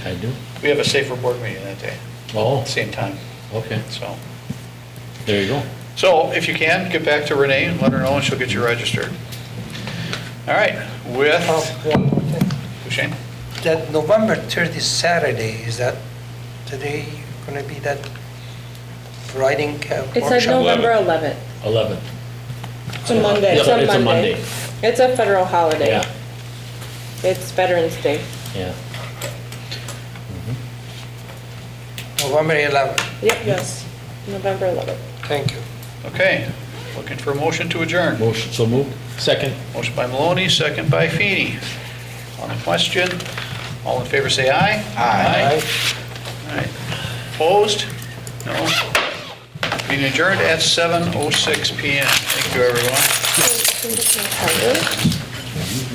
I do. We have a safer board meeting that day, Oh, same time, okay, so. there you go. So if you can, get back to Renee and let her know, and she'll get you registered. All right, with, Oh, one more thing. Shane? That November 30 Saturday, is that today going to be that writing uh, It's like workshop? November 11th. 11. It's a Monday. Yeah, it's It's a a Monday. Monday. It's a federal holiday. Yeah, It's Veterans Day. yeah. November 11. Yep, yes, November 11th. Thank you. Okay, looking for a motion to adjourn. Motion, so moved. Second. Motion by Maloney, second by Feeney. On the question, all in favor say aye. Aye. All right. Opposed? No. Meeting oh adjourned at 7:06 PM. Thank you, everyone. Can you- can you just-